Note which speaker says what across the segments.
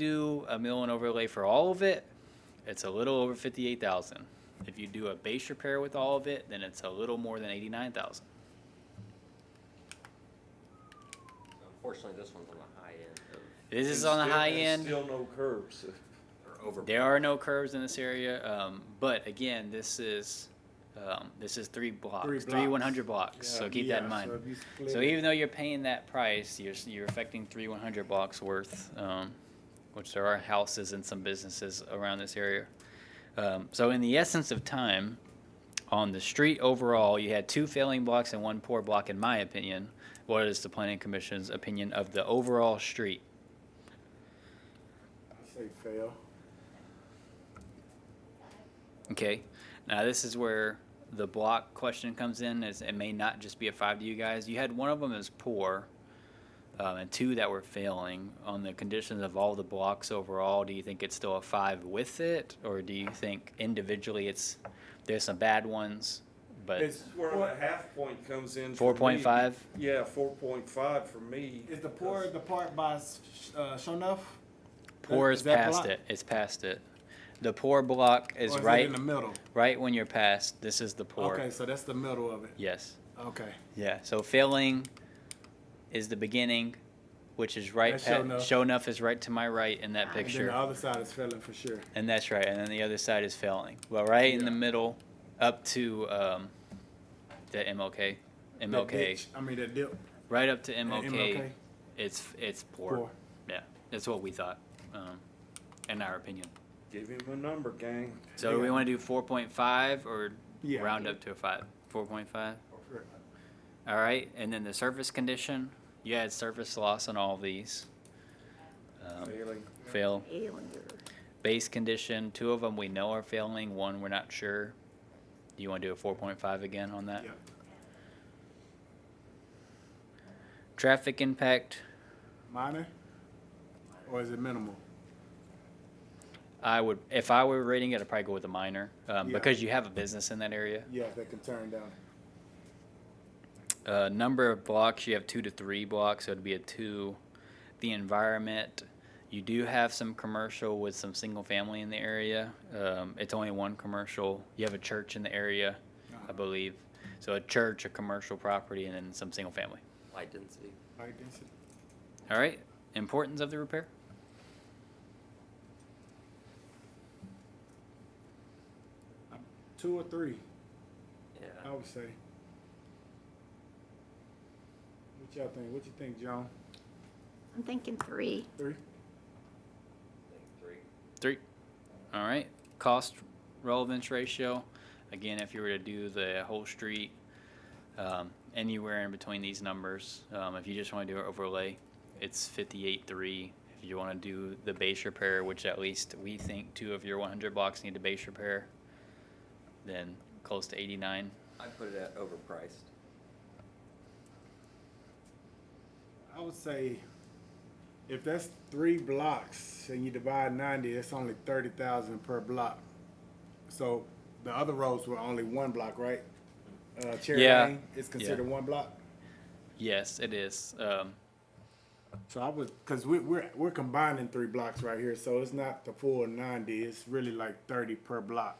Speaker 1: do a mill and overlay for all of it, it's a little over fifty-eight thousand. If you do a base repair with all of it, then it's a little more than eighty-nine thousand.
Speaker 2: Unfortunately, this one's on the high end of.
Speaker 1: This is
Speaker 3: And
Speaker 1: on the
Speaker 3: still-
Speaker 1: high
Speaker 3: and
Speaker 1: end.
Speaker 3: Still no curbs.
Speaker 2: Or over.
Speaker 1: There are no curves in this area, um, but again, this is, um, this is three blocks, three
Speaker 4: blocks.
Speaker 1: one hundred blocks, so keep that in mind. So even though you're paying that price, you're, s- you're affecting three one hundred blocks worth, um, which there are houses and some businesses around this area. Um, so in the essence of time, on the street overall, you had two failing blocks and one poor block, in my opinion. What is the planning commission's opinion of the overall street?
Speaker 4: I say fail.
Speaker 1: Okay. Now this is where the block question comes in. Is it may not just be a five to you guys. You had one of them as poor, um, and two that were failing on the conditions of all the blocks overall. Do you think it's still a five with it, or do you think individually it's there's some bad ones, but
Speaker 3: It's where the half point comes in. for me.
Speaker 1: 4.5?
Speaker 3: Yeah, four point five for me.
Speaker 4: Is the poor the part by uh, Shonuff?
Speaker 1: poor
Speaker 4: Is
Speaker 1: is
Speaker 4: that
Speaker 1: past
Speaker 4: block?
Speaker 1: it. It's past it. The poor block is,
Speaker 4: Or it
Speaker 1: right,
Speaker 4: in the middle?
Speaker 1: right when you're past. This is the poor.
Speaker 4: Okay, so that's the middle of it.
Speaker 1: Yes.
Speaker 4: Okay.
Speaker 1: Yeah, so failing is the beginning, which is right.
Speaker 4: That's
Speaker 1: pa-
Speaker 4: show enough.
Speaker 1: show enough is right to my right in that
Speaker 4: And then
Speaker 1: picture,
Speaker 4: the other side is failing for sure.
Speaker 1: and that's right. And then the other side is failing. Well, right in the
Speaker 4: Yeah.
Speaker 1: middle, up to um, the MLK,
Speaker 4: That
Speaker 1: MLK,
Speaker 4: ditch, I mean that dip.
Speaker 1: right up to
Speaker 4: and
Speaker 1: MLK.
Speaker 4: MLK.
Speaker 1: It's it's poor.
Speaker 4: Poor.
Speaker 1: Yeah, that's what we thought, um, in our opinion.
Speaker 3: Give him a number, gang.
Speaker 1: So do we
Speaker 4: Yeah.
Speaker 1: want to do four point five or
Speaker 4: Yeah.
Speaker 1: round up to a five? Four point five. All right, and then the surface condition, you had surface loss on all of these. Um,
Speaker 3: Failing.
Speaker 1: fail. Base condition, two of them we know are failing, one we're not sure. Do you want to do a four point five again on that?
Speaker 4: Yeah.
Speaker 1: Traffic impact,
Speaker 4: Minor? Or is it minimal?
Speaker 1: I would, if I were rating it, I'd probably go with a minor, um,
Speaker 4: Yeah.
Speaker 1: because you have a business in that area.
Speaker 4: Yeah, that can turn down.
Speaker 1: Uh, number of blocks, you have two to three blocks, so it'd be a two. The environment, you do have some commercial with some single family in the area. Um, it's only one commercial. You have a church in the area, I
Speaker 4: Uh-huh.
Speaker 1: believe. So a church, a commercial property, and then some single family.
Speaker 2: Light density.
Speaker 4: Light density.
Speaker 1: All right. Importance of the repair?
Speaker 4: Two or three, I
Speaker 2: Yeah.
Speaker 4: would say. What y'all think? What you think, Joan?
Speaker 5: I'm thinking three.
Speaker 4: Three?
Speaker 2: Three.
Speaker 1: Three. All right. Cost relevance ratio. Again, if you were to do the whole street, um, anywhere in between these numbers, um, if you just want to do an overlay, it's fifty-eight three. If you want to do the base repair, which at least we think two of your one hundred blocks need a base repair, then close to eighty-nine.
Speaker 2: I put it at overpriced.
Speaker 4: I would say if that's three blocks and you divide ninety, it's only thirty thousand per block. So the other roads were only one block, right? Uh, Cherry
Speaker 1: Yeah.
Speaker 4: Lane is considered one block.
Speaker 1: Yes, it is. Um,
Speaker 4: So I would, cause we, we're we're combining three blocks right here, so it's not the full ninety. It's really like thirty per block.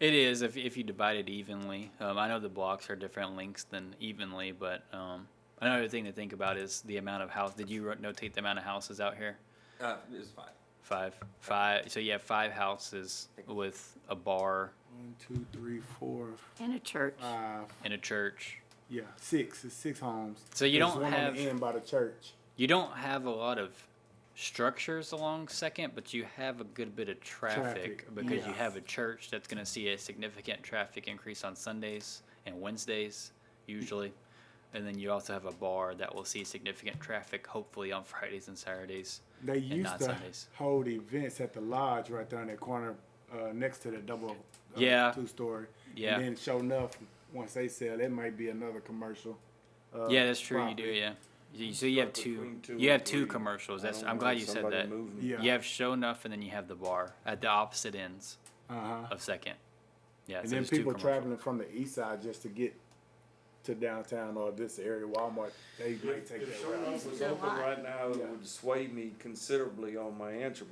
Speaker 1: It is if if you divide it evenly. Um, I know the blocks are different lengths than evenly, but um, another thing to think about is the amount of house. Did you ro- notate the amount of houses out here?
Speaker 2: Uh, it was five.
Speaker 1: Five, five. So you have five houses with a bar
Speaker 4: One, two, three, four,
Speaker 5: And a church.
Speaker 4: five.
Speaker 1: and a church.
Speaker 4: Yeah, six. It's six homes.
Speaker 1: So you
Speaker 4: There's
Speaker 1: don't
Speaker 4: one
Speaker 1: have-
Speaker 4: on the end by the church.
Speaker 1: You don't have a lot of structures along Second, but you have a good bit of traffic,
Speaker 4: Traffic,
Speaker 1: because you
Speaker 4: yes.
Speaker 1: have a church that's going to see a significant traffic increase on Sundays and Wednesdays usually. And then you also have a bar that will see significant traffic hopefully on Fridays and Saturdays.
Speaker 4: They used
Speaker 1: not
Speaker 4: to
Speaker 1: Sundays.
Speaker 4: hold events at the lodge right there in that corner, uh, next to the double, uh,
Speaker 1: Yeah.
Speaker 4: two story.
Speaker 1: Yeah.
Speaker 4: And then show enough, once they sell, it might be another commercial. uh,
Speaker 1: yeah, that's true. You do,
Speaker 4: property.
Speaker 1: yeah. You- So you have
Speaker 3: But
Speaker 1: two.
Speaker 3: between two
Speaker 1: You
Speaker 3: and
Speaker 1: have two
Speaker 3: three,
Speaker 1: commercials.
Speaker 3: I
Speaker 1: That's.
Speaker 3: don't
Speaker 1: I'm
Speaker 3: know
Speaker 1: glad
Speaker 3: if
Speaker 1: you said
Speaker 3: somebody
Speaker 1: that.
Speaker 3: moving.
Speaker 4: Yeah.
Speaker 1: You have show enough, and then you have the bar at the opposite ends
Speaker 4: Uh huh.
Speaker 1: of Second. Yeah.
Speaker 4: And
Speaker 1: so
Speaker 4: then
Speaker 1: there's two
Speaker 4: people
Speaker 1: commercials.
Speaker 4: traveling from the east side just to get to downtown or this area, Walmart, they might
Speaker 3: If
Speaker 4: take that route.
Speaker 3: Sherlock was
Speaker 5: There's a
Speaker 3: open
Speaker 5: lot.
Speaker 3: right now, it
Speaker 4: Yeah.
Speaker 3: would sway me considerably on my answer,